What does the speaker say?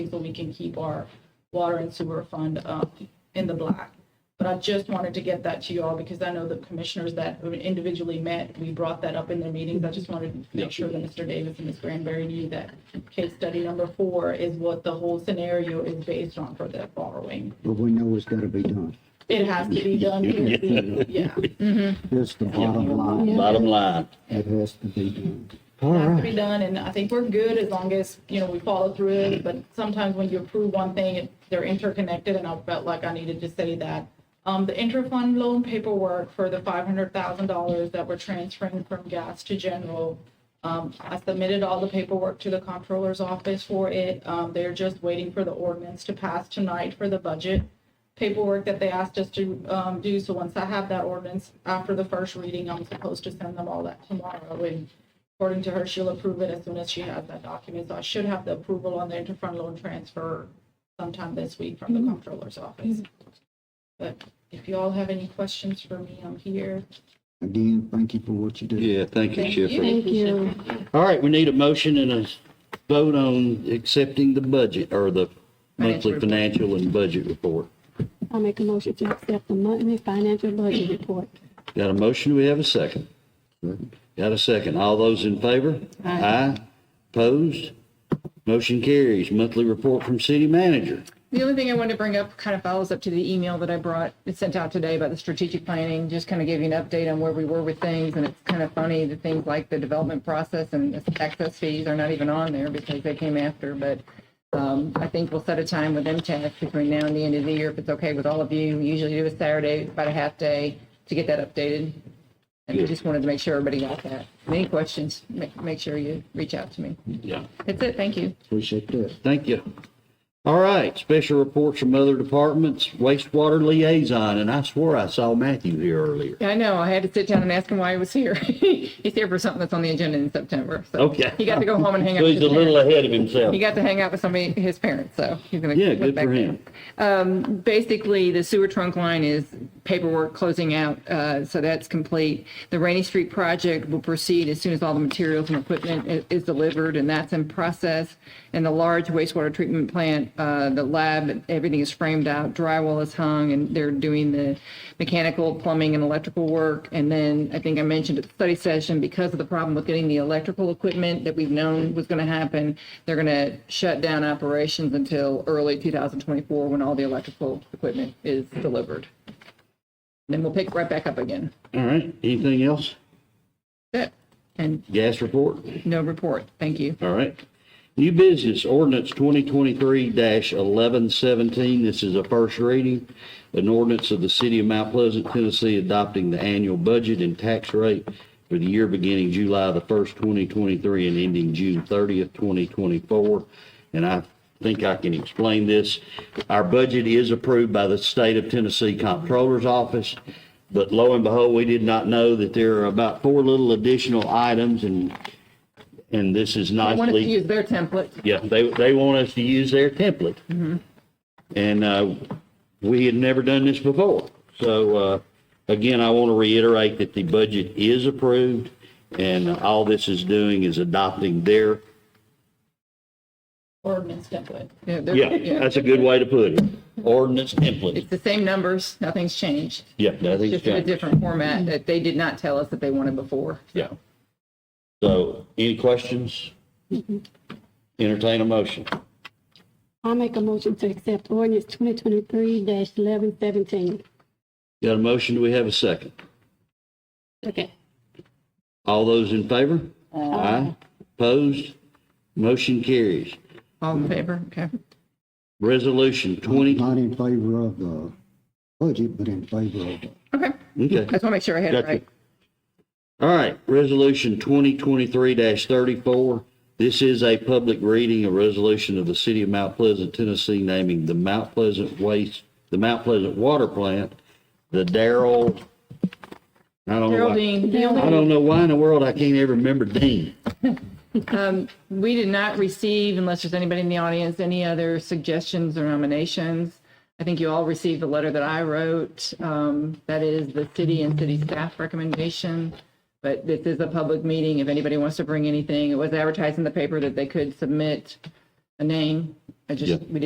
so we can keep our water and sewer fund um, in the black. But I just wanted to get that to you all because I know the commissioners that individually met, we brought that up in their meetings. I just wanted to Yeah. make sure that Mr. Davis and Ms. Granberry knew that case study number four is what the whole scenario is based on for that borrowing. But we know it's gotta be done. It has to be done here, yeah. That's the bottom line. Bottom line, It has to be done. It has to be done, and I think we're good as long as, you know, we follow through it, but sometimes when you approve one thing, it- they're interconnected, and I felt like I needed to say that. Um, the inter-fund loan paperwork for the five hundred thousand dollars that we're transferring from gas to general, um, I submitted all the paperwork to the comptroller's office for it, um, they're just waiting for the ordinance to pass tonight for the budget paperwork that they asked us to um, do. So once I have that ordinance after the first reading, I'm supposed to send them all that tomorrow. And according to her, she'll approve it as soon as she has that document. So I should have the approval on the interfund loan transfer sometime this week from the comptroller's office. But if you all have any questions for me, I'm here. Again, thank you for what you do. yeah, thank you, Thank Schiffer. Thank you. All right, we need a motion and a vote on accepting the budget, or the monthly financial and budget report. I make a motion to accept the monthly financial budget report. Got a motion, do we have a second? Got a second, all those in favor? Aye. Opposed? Motion carries, monthly report from city manager. The only thing I wanted to bring up kind of follows up to the email that I brought, it sent out today about the strategic planning, just kind of gave you an update on where we were with things. And it's kind of funny, the things like the development process and the access fees are not even on there because they came after. But um, I think we'll set a time with MTAC between now and the end of the year, if it's okay with all of you. We usually do a Saturday, about a half day, to get that updated. And I just wanted to make sure everybody got that. Any questions, make, make sure you reach out to me. Yeah. That's it, thank you. Appreciate that. Thank you. All right, special reports from other departments, wastewater liaison, and I swore I saw Matthew here earlier. Yeah, I know. I had to sit down and ask him why he was here. he's here for something that's on the agenda in September. So Okay. He got to go home and hang out. So with he's a his little parents. ahead of himself. He got to hang out with somebody, his parents. So he's gonna. Yeah, look good back for there. him. Um, basically, the sewer trunk line is paperwork closing out, uh, so that's complete. The Rainy Street project will proceed as soon as all the materials and equipment i- is delivered, and that's in process. And the large wastewater treatment plant, uh, the lab, everything is framed out, drywall is hung, and they're doing the mechanical, plumbing, and electrical work. And then, I think I mentioned at the study session, because of the problem with getting the electrical equipment that we've known was gonna happen, they're gonna shut down operations until early 2024, when all the electrical equipment is delivered. Then we'll pick right back up again. All right, anything else? That- And Gas report? no report, thank you. All right. New business ordinance twenty twenty-three eleven seventeen. This is a first reading. An ordinance of the city of Mount Pleasant, Tennessee, adopting the annual budget and tax rate for the year beginning July the first, twenty twenty-three and ending June thirtieth, twenty twenty-four. And I think I can explain this. Our budget is approved by the state of Tennessee Comptroller's Office. But lo and behold, we did not know that there are about four little additional items and, and this is I nicely. wanted to use their template. Yeah, they, they want us to use their template. Mm-hmm. And, uh, we had never done this before. So, uh, again, I want to reiterate that the budget is approved and all this is doing is adopting their, Ordinance template. Yeah, they're- yeah, that's a good way to put it. Ordinance template. It's the same numbers, nothing's changed, Yeah, nothing's just in a changed. different format that they did not tell us that they wanted before. Yeah. So any questions? Mm-hmm. Entertain a motion. I make a motion to accept ordinance twenty twenty-three eleven seventeen. Got a motion? Do we have a second? Okay. All those in favor? Aye. Opposed? Motion carries. All in favor? Okay. Resolution 20, Not in favor of the budget, but in favor of, the- Okay. okay. I just want to make sure I had it Gotcha. right. All right, Resolution 2023-34. This is a public reading, a resolution of the City of Mount Pleasant, Tennessee, naming the Mount Pleasant Waste, the Mount Pleasant Water Plant, the Darrell, I don't know why, Geraldine, I the only, don't know why in the world I can't ever remember Dean. we did not receive, unless there's anybody in the audience, any other suggestions or nominations. I think you all received the letter that I wrote. Um, that is the city and city staff recommendation. But this is a public meeting. If anybody wants to bring anything, it was advertised in the paper that they could submit a name. I Yeah. just, we